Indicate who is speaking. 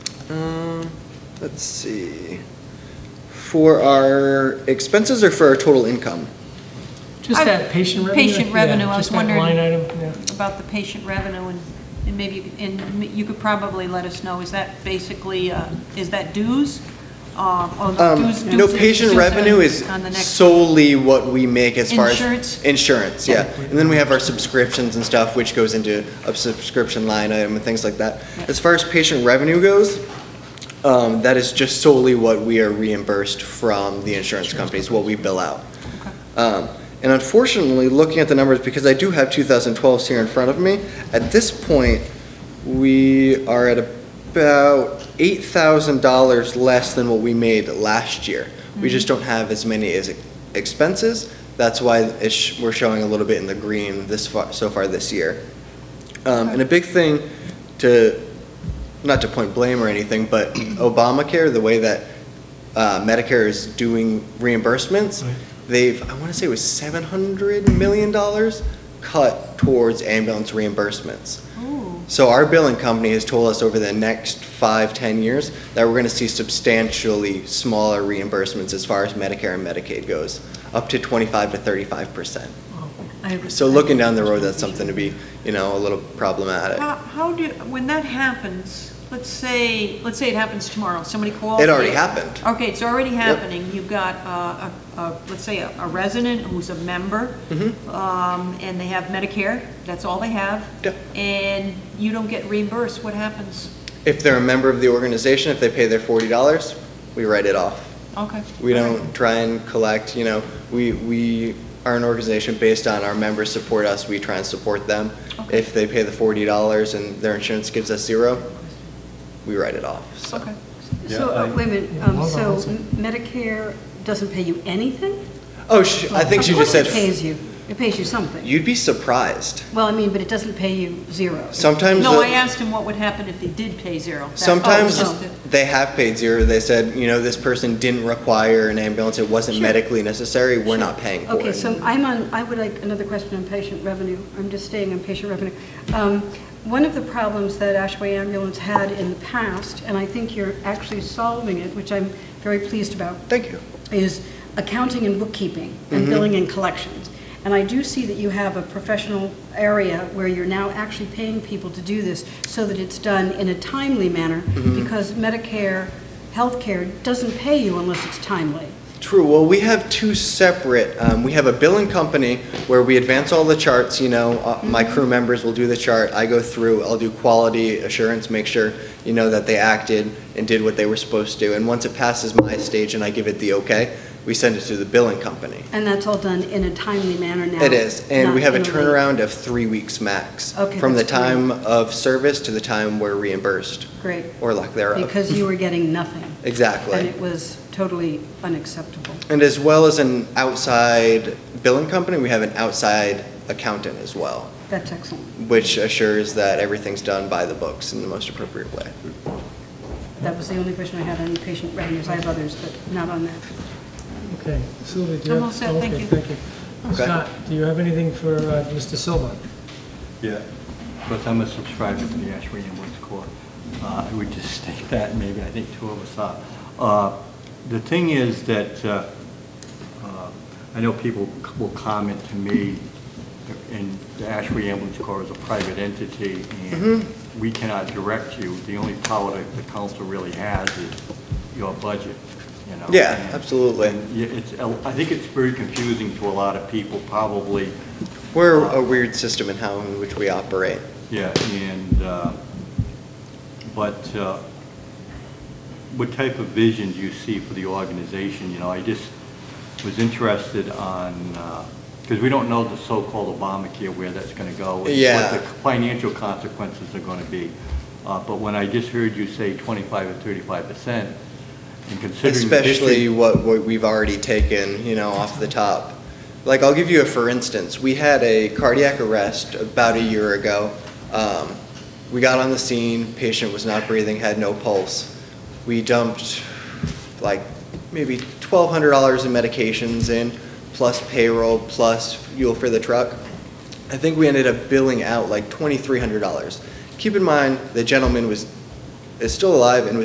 Speaker 1: Um, let's see, for our expenses or for our total income?
Speaker 2: Just
Speaker 3: I-
Speaker 2: that patient revenue?
Speaker 3: patient
Speaker 2: Yeah,
Speaker 3: revenue, I was wondering-
Speaker 2: Just that line item, yeah.
Speaker 3: about the patient revenue, and, and maybe, you could- and you could probably let us know, is that basically, uh, is that dues? Um, or
Speaker 1: Um,
Speaker 3: dues-
Speaker 1: No,
Speaker 3: dues-
Speaker 1: patient
Speaker 3: dues
Speaker 1: revenue
Speaker 3: on-
Speaker 1: is
Speaker 3: On the next,
Speaker 1: solely what we make as far as.
Speaker 3: Insurance?
Speaker 1: Insurance, yeah. And then we have our subscriptions and stuff, which goes into a subscription line item and things like that.
Speaker 3: Yeah.
Speaker 1: As far as patient revenue goes, um, that is just solely what we are reimbursed from the insurance companies, what we bill out. Um, And unfortunately, looking at the numbers, because I do have 2012s here in front of me, at this point, we are at about $8,000 less than what we made last year. We just don't have as many as expenses. That's why it's, sh- we're showing a little bit in the green this far, so far this year. Um, And a big thing to, not to point blame or anything, but Obamacare, the way that uh, Medicare is doing reimbursements,
Speaker 2: Right.
Speaker 1: they've, I want to say it was $700 million cut towards ambulance reimbursements.
Speaker 3: ooh,
Speaker 1: So our billing company has told us over the next five, 10 years that we're going to see substantially smaller reimbursements as far as Medicare and Medicaid goes, up to 25 to 35%.
Speaker 3: I-
Speaker 1: So looking down the road, that's something to be, you know, a little problematic.
Speaker 3: How, how do, when that happens, let's say, let's say it happens tomorrow, somebody calls.
Speaker 1: It already
Speaker 3: you.
Speaker 1: happened.
Speaker 3: Okay, it's already happening, you've got uh, a, a, let's say, a a resident who's a member,
Speaker 1: Mm-hmm.
Speaker 3: um, and they have Medicare, that's all they have.
Speaker 1: Yeah.
Speaker 3: And you don't get reimbursed, what happens?
Speaker 1: If they're a member of the organization, if they pay their $40, we write it off.
Speaker 3: Okay.
Speaker 1: We
Speaker 3: all right.
Speaker 1: don't try and collect, you know, we, we are an organization based on our members support us, we try and support them.
Speaker 3: Okay.
Speaker 1: If they pay the forty dollars and their insurance gives us zero, we write it off, so.
Speaker 3: Okay.
Speaker 4: So,
Speaker 5: Yeah, I-
Speaker 4: uh, wait a minute,
Speaker 2: Yeah,
Speaker 4: um,
Speaker 2: hold on
Speaker 4: so
Speaker 2: one second.
Speaker 4: Medicare doesn't pay you anything?
Speaker 1: Oh, sh I think she just
Speaker 4: Of course
Speaker 1: said,
Speaker 4: it pays you, it pays you something.
Speaker 1: you'd be surprised.
Speaker 4: Well, I mean, but it doesn't pay you zero.
Speaker 1: Sometimes,
Speaker 3: No,
Speaker 1: the-
Speaker 3: I asked him what would happen if they did pay zero. That-
Speaker 1: sometimes
Speaker 3: oh, so-
Speaker 1: they have paid zero, they said, you know, this person didn't require an ambulance, it wasn't
Speaker 4: Sure.
Speaker 1: medically necessary, we're not paying for it.
Speaker 4: Okay, so I'm on, I would like another question on patient revenue. I'm just staying on patient revenue. Um, One of the problems that Ashway Ambulance had in the past, and I think you're actually solving it, which I'm very pleased about,
Speaker 1: Thank you.
Speaker 4: is accounting and bookkeeping and
Speaker 1: Mm-hmm.
Speaker 4: billing and collections. And I do see that you have a professional area where you're now actually paying people to do this so that it's done in a timely manner
Speaker 1: Mm-hmm.
Speaker 4: because Medicare, healthcare doesn't pay you unless it's timely.
Speaker 1: True. Well, we have two separate, um, we have a billing company where we advance all the charts, you know, uh, my crew
Speaker 4: Mm-hmm.
Speaker 1: members will do the chart, I go through, I'll do quality assurance, make sure, you know, that they acted and did what they were supposed to. And once it passes my stage and I give it the okay, we send it to the billing company.
Speaker 4: And that's all done in a timely manner now.
Speaker 1: It is, and we have
Speaker 4: not
Speaker 1: a
Speaker 4: in late-
Speaker 1: turnaround of three weeks max.
Speaker 4: Okay,
Speaker 1: From the
Speaker 4: that's great.
Speaker 1: time of service to the time we're reimbursed,
Speaker 4: Great,
Speaker 1: or lack thereof.
Speaker 4: because you were getting nothing.
Speaker 1: Exactly.
Speaker 4: And it was totally unacceptable.
Speaker 1: And as well as an outside billing company, we have an outside accountant as well.
Speaker 4: That's excellent.
Speaker 1: which assures that everything's done by the books in the most appropriate way.
Speaker 4: That was the only question I had on patient revenues. I have others, but not on that.
Speaker 2: Okay, Sylvia, do you
Speaker 3: I'm
Speaker 2: have?
Speaker 3: all set, thank
Speaker 2: okay,
Speaker 3: you.
Speaker 2: thank you.
Speaker 1: Okay.
Speaker 2: Scott, do you have anything for uh, Mr. Silva?
Speaker 5: Yeah, because I'm a subscriber to the Ashway Ambulance Corps. Uh, I would just state that, maybe, I think two of us are. Uh, The thing is that, uh, uh, I know people c- will comment to me, and the Ashway Ambulance Corps is a private entity, and
Speaker 1: Mm-hmm.
Speaker 5: we cannot direct you. The only power that the council really has is your budget, you know?
Speaker 1: Yeah,
Speaker 5: and-
Speaker 1: absolutely.
Speaker 5: and Yeah, it's, I think it's very confusing to a lot of people, probably,
Speaker 1: We're a weird system in how in which we operate.
Speaker 5: yeah, and, uh, but uh, what type of vision do you see for the organization? You know, I just was interested on, because we don't know the so-called Obamacare, where that's going to go. and
Speaker 1: Yeah.
Speaker 5: What the financial consequences are going to be. Uh, But when I just heard you say 25 or 35 percent, and considering. the
Speaker 1: Especially
Speaker 5: history-
Speaker 1: what, what we've already taken, you know, off the top. Like, I'll give you a for instance. We had a cardiac arrest about a year ago. Um, we got on the scene, patient was not breathing, had no pulse. We dumped like maybe twelve hundred dollars in medications in, plus payroll, plus fuel for the truck. I think we ended up billing out like twenty-three hundred dollars. Keep in mind, the gentleman was, is still alive and was.